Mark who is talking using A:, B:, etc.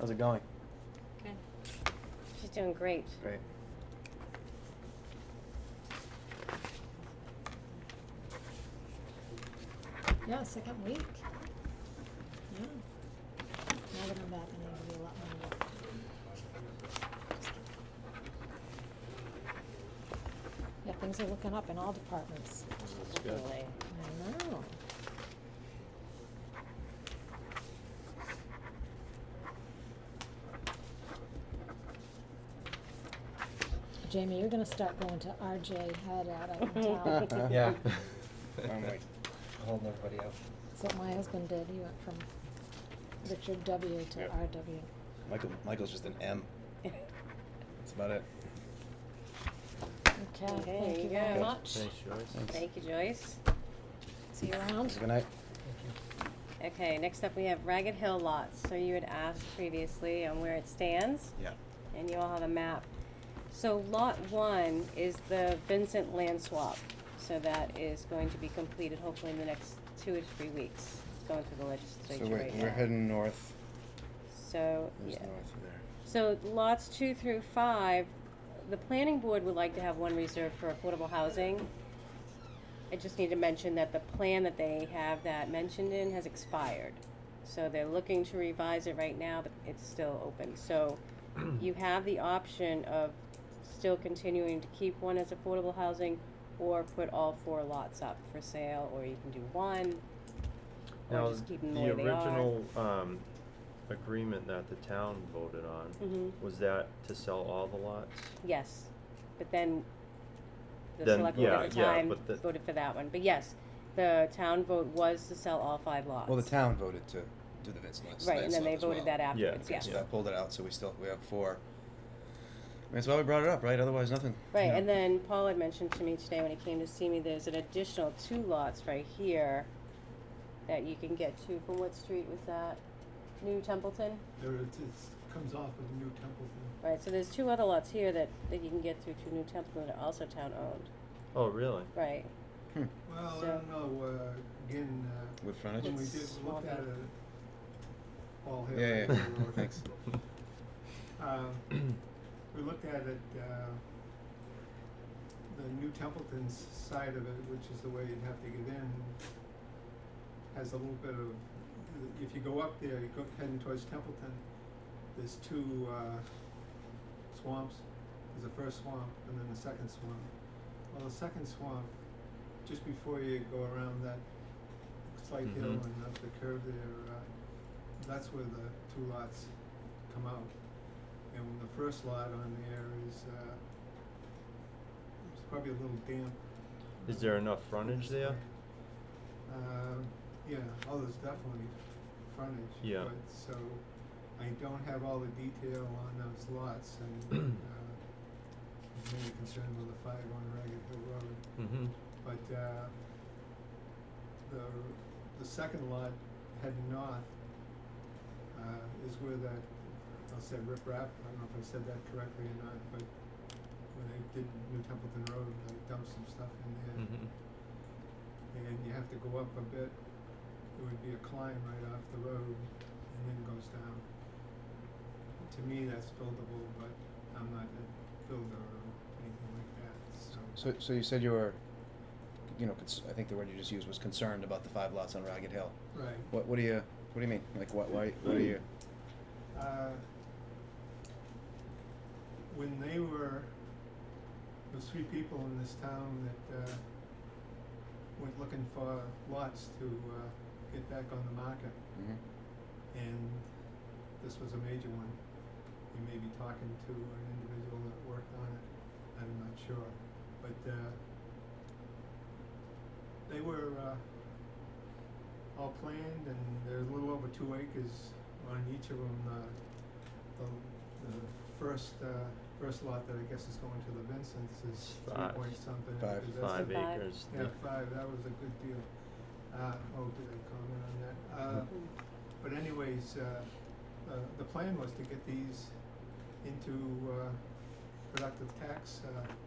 A: How's it going?
B: Good.
C: She's doing great.
A: Great.
D: Yeah, second week. Yeah. Now that I'm back, I need to do a lot more work. Yeah, things are looking up in all departments.
E: That's good.
C: Definitely.
D: I know. Jamie, you're gonna start going to RJ Head out, I can tell.
A: Yeah. I'm like holding everybody up.
D: That's what my husband did. He went from Richard W. to
A: Yeah.
D: RW.
A: Michael, Michael's just an M. That's about it.
D: Okay,
C: Okay,
D: thank you
C: you
D: very
C: go.
D: much.
E: Thanks, Joyce.
A: Thanks.
C: Thank you, Joyce.
D: See you around.
A: Good night.
C: Okay, next up we have Ragged Hill Lots. So you had asked previously on where it stands,
A: Yeah.
C: and you all have a map. So lot one is the Vincent land swap. So that is going to be completed hopefully in the next two or three weeks. It's going through the
A: So
C: legislature
A: we're,
C: right
A: we're
C: now.
A: heading north.
C: So,
A: There's
C: yeah.
A: north there.
C: So lots two through five, the planning board would like to have one reserved for affordable housing. I just need to mention that the plan that they have that mentioned in has expired. So they're looking to revise it right now, but it's still open. So you have the option of still continuing to keep one as affordable housing or put all four lots up for sale, or you can do one. Or
E: Now,
C: just keep 'em the way they are.
E: original, um, agreement that the town voted on,
C: Mhm.
E: was that to sell all the lots?
C: Yes, but then the
E: Then,
C: select board
E: yeah,
C: at the
E: yeah,
C: time
E: but the-
C: voted for that one, but yes, the town vote was to sell all five lots.
A: Well, the town voted to do the Vince Lance.
C: Right, and then they
A: landslide as
C: voted
A: well.
C: that afterwards,
E: Yeah.
C: yeah.
A: So that pulled it out, so we still, we have four. I mean, That's why we brought it up, right? Otherwise, nothing.
C: Right,
A: you know.
C: and then Paul had mentioned to me today when he came to see me, there's an additional two lots right here that you can get to, from what street was that? New Templeton?
F: There it is, comes off of New Templeton.
C: Right, so there's two other lots here that, that you can get through to New Templeton that are also town-owned,
E: Oh, really?
C: right?
A: Hmm.
F: Well, I
C: So-
F: don't know, uh, again, uh,
A: With frontage?
F: when we
C: It's
F: did
C: small
F: look at
C: bit.
F: it, Paul
A: Yeah, yeah,
F: Hill.
A: yeah. Thanks.
F: Um, we looked at it, uh, the New Templeton's side of it, which is the way you'd have to get in, has a little bit of, if you go up there, you go heading towards Templeton, there's two, uh, swamps. There's the first swamp and then the second swamp. Well, the second swamp, just before you go around that slight hill
E: Mhm.
F: and up the curve there, uh, that's where the two lots come out. And the first lot on there is, uh, it's probably a little damp.
E: Is there enough frontage there?
F: Uh, yeah, oh, there's definitely frontage.
E: Yeah.
F: But, so, I don't have all the detail on those lots and, uh, I'm mainly concerned with the five on Ragged Hill Road.
E: Mm-hmm,
F: But, uh, the, the second lot heading north, uh, is where that, I'll say riprap, I don't know if I said that correctly or not, but when they did New Templeton Road, they dumped some stuff in there
E: mm-hmm.
F: and you have to go up a bit. It would be a climb right off the road and then goes down. To me, that's buildable, but I'm not a builder or anything like that, so.
A: So, so you said you were, you know, cons- I think the word you just used was concerned about the five lots on Ragged Hill.
F: Right,
A: What, what do you, what do you mean? Like, what, why, what are you?
F: uh, when they were, those three people in this town that, uh, went looking for lots to, uh, get back on the market,
A: Mhm.
F: and this was a major one. You may be talking to an individual that worked on it, I'm not sure, but, uh, they were, uh, all planned and there's a little over two acres on each of them, uh, the, the first, uh, first lot that I guess is going to the Vincents is three
E: Five.
F: point something.
A: Five.
F: acres. That's
E: Five
F: the-
C: Five.
E: acres.
F: Yeah, five, that was a good deal. Uh, oh, did I comment on that? Uh,
A: Mm-hmm.
F: but anyways, uh, uh, the plan was to get these into, uh, productive tax, uh,